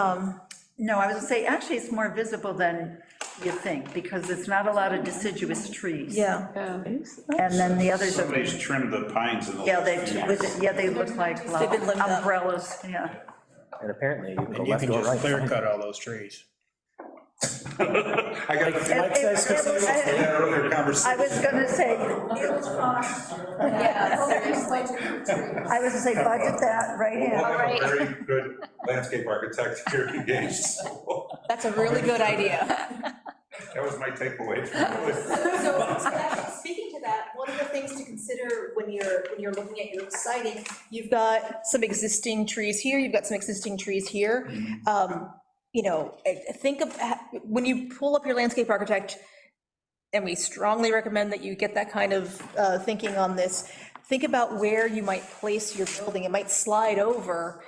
Um, No, I was gonna say, actually, it's more visible than you think, because it's not a lot of deciduous trees. Yeah, And then the others are, Somebody's trimmed the pines in the. yeah, last they, few years. yeah, they look like uh, been lived up. umbrellas, yeah. And apparently you can go And you left can or just right. clear cut all those trees. I got the- It- it- it- that earlier I conversation. was gonna say, Yeah, seriously. I was gonna say, budget that right We'll in. have a very good landscape architect here engaged. so that's a really good idea. That was my takeaway from it. So, so actually, speaking to that, one of the things to consider when you're, when you're looking at your siding, You've got some existing trees here, you've got some existing trees here. Um, You know, I- I think of, when you pull up your landscape architect, and we strongly recommend that you get that kind of uh, thinking on this, think about where you might place your building. It might slide over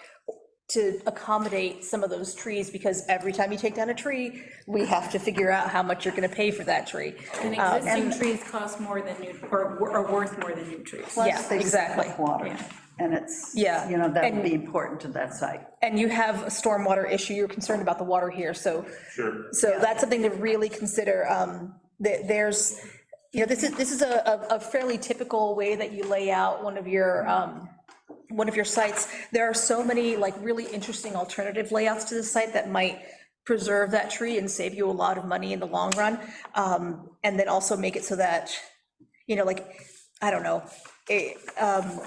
to accommodate some of those trees, because every time you take down a tree, we have to figure out how much you're gonna pay for that tree. And existing trees cost more than new, or are worth more than new trees. Yeah, They suck exactly. up Water, and it's, Yeah, you know, that would and- be important to that site. And you have a stormwater issue, you're concerned about the water here, so, Sure. so that's something to really consider. um, that There's, you know, this is, this is a, a- a fairly typical way that you lay out one of your, um, one of your sites. There are so many, like, really interesting alternative layouts to the site that might preserve that tree and save you a lot of money in the long run. um, And then also make it so that, you know, like, I don't know, it, um,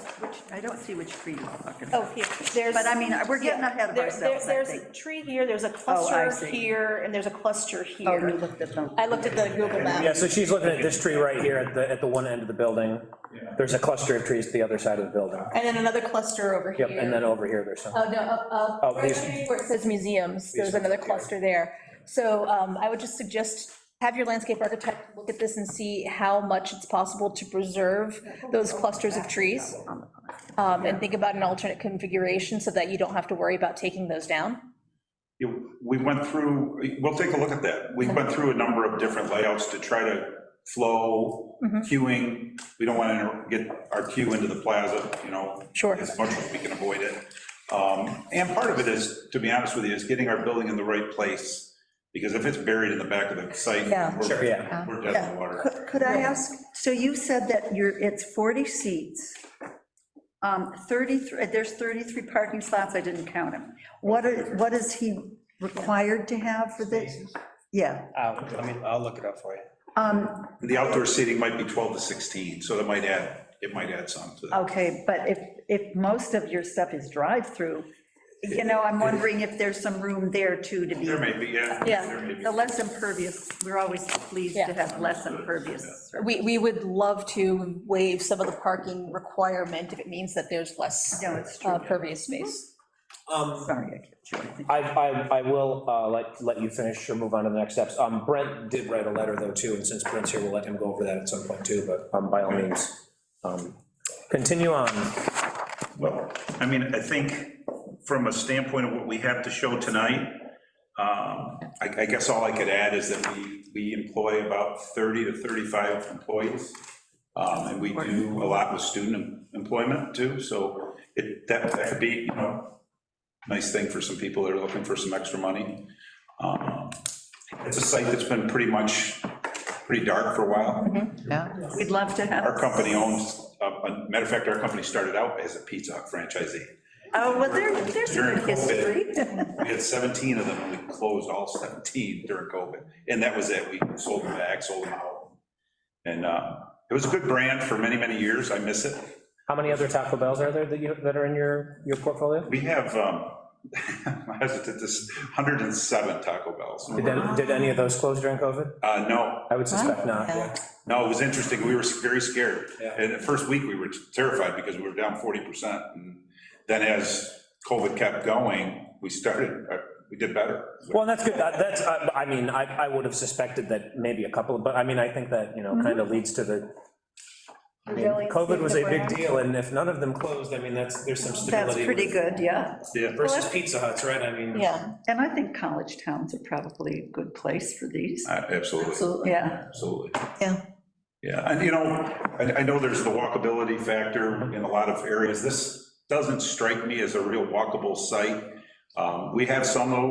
I don't see which tree you're talking about. oh, here, there's. But I mean, we're getting ahead of There- there- ourselves, I There's a think. Oh, tree here, there's a see. cluster here, and there's a cluster Oh, you here. looked at them. I looked at the Google Yeah, map. so she's looking at this tree right here at the, at the one end of the building. There's a cluster of trees to the other side of the building. And then another cluster over here. Yep, and then over here, there's some. Oh, no, up, up, Oh, where these- it says museums, there's another cluster there. So um, I would just suggest, have your landscape architect look at this and see how much it's possible to preserve those clusters of trees. um, And think about an alternate configuration so that you don't have to worry about taking those down. You- We went through, we'll take a look at that. We went through a number of different layouts to try to flow, Mm-hmm. queuing. We don't want to get our queue into the plaza, you know. Sure. As much as we can avoid it. Um, And part of it is, to be honest with you, is getting our building in the right place, because if it's buried in the back of the site. Yeah. we're- Sure, yeah. We're dead in the water. Could- Could I ask, so you said that you're, it's 40 seats, um, 33, there's 33 parking slots, I didn't count them. What are, what is he required to have for this? Yeah, I'll, I mean, I'll look it up for you. um, The outdoor seating might be 12 to 16, so that might add, it might add some to that. okay, but if, if most of your stuff is drive-through, you know, I'm wondering if there's some room there too to be, There may be, yeah. Oh. Yeah. there may be. the less impervious, we're always pleased to Yeah. have less impervious. We, we would love to waive some of the parking requirement if it means that there's less No, it's true, uh, pervious space. Um, sorry, I kept you, I think. I, I, I will uh, let, let you finish or move on to the next steps. Um, Brent did write a letter though too, and since Brent's here, we'll let him go over that at some point too, but um, by all means. um, Continue on. Well, I mean, I think from a standpoint of what we have to show tonight, um, I I guess all I could add is that we, we employ about 30 to 35 employees, um, and we do a lot with student employment too, so it, that that could be, you know, nice thing for some people that are looking for some extra money. Um, It's a site that's been pretty much, pretty dark for a while. We'd love to have. Our company owns, uh, uh, matter of fact, our company started out as a Pizza Hut franchisee. Oh, well, there, there's a During good history. COVID. We had 17 of them, and we closed all 17 during COVID, and that was it, we sold them back, sold them out. And uh, it was a good brand for many, many years, I miss it. How many other Taco Bells are there that you, that are in your, your portfolio? We have, um, I'm hesitant, this 107 Taco Bells. Did, any- did any of those close during COVID? Uh, No, I would suspect not. no, it was interesting, we were very scared. Yeah. And the first week, we were terrified because we were down 40%. And Then as COVID kept going, we started, uh, we did better. Well, that's good, That- that's, I I mean, I, I would have suspected that maybe a couple, but I mean, I think that, you know, kind Mm-hmm. of leads to the, I mean, COVID was a big deal, and if none of them closed, I mean, that's, there's some That's stability. pretty good, yeah. Yeah. Versus Pizza Huts, right, I mean. Yeah, And I think college towns are probably a good place for these. Uh, Absolutely. Yeah, Absolutely. Yeah. Yeah, and you know, I, I know there's the walkability factor in a lot of areas. This doesn't strike me as a real walkable site. Um, We have some though